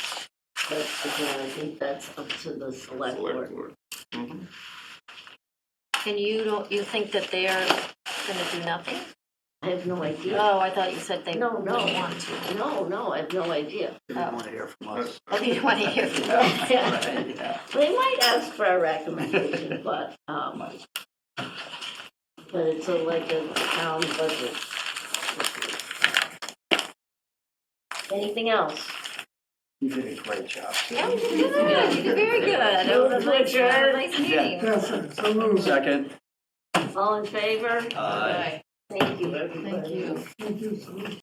but again, I think that's up to the select select board. board. Mhm. And you don't, you think that they're gonna do nothing? I have no idea. Oh, I thought you said they No, don't no. want to. No, no, I have no idea. They didn't want to hear from us. Oh, you want to hear from them? They Right, yeah. might ask for a recommendation, but, um, but it's a, like a town budget. Anything else? You did a great job. Yeah, you did good, you did very good. It was a nice- a nice meeting. Yes, so moved. Second. All in favor? Aye. Thank you, everybody. Thank you. Thank you so much.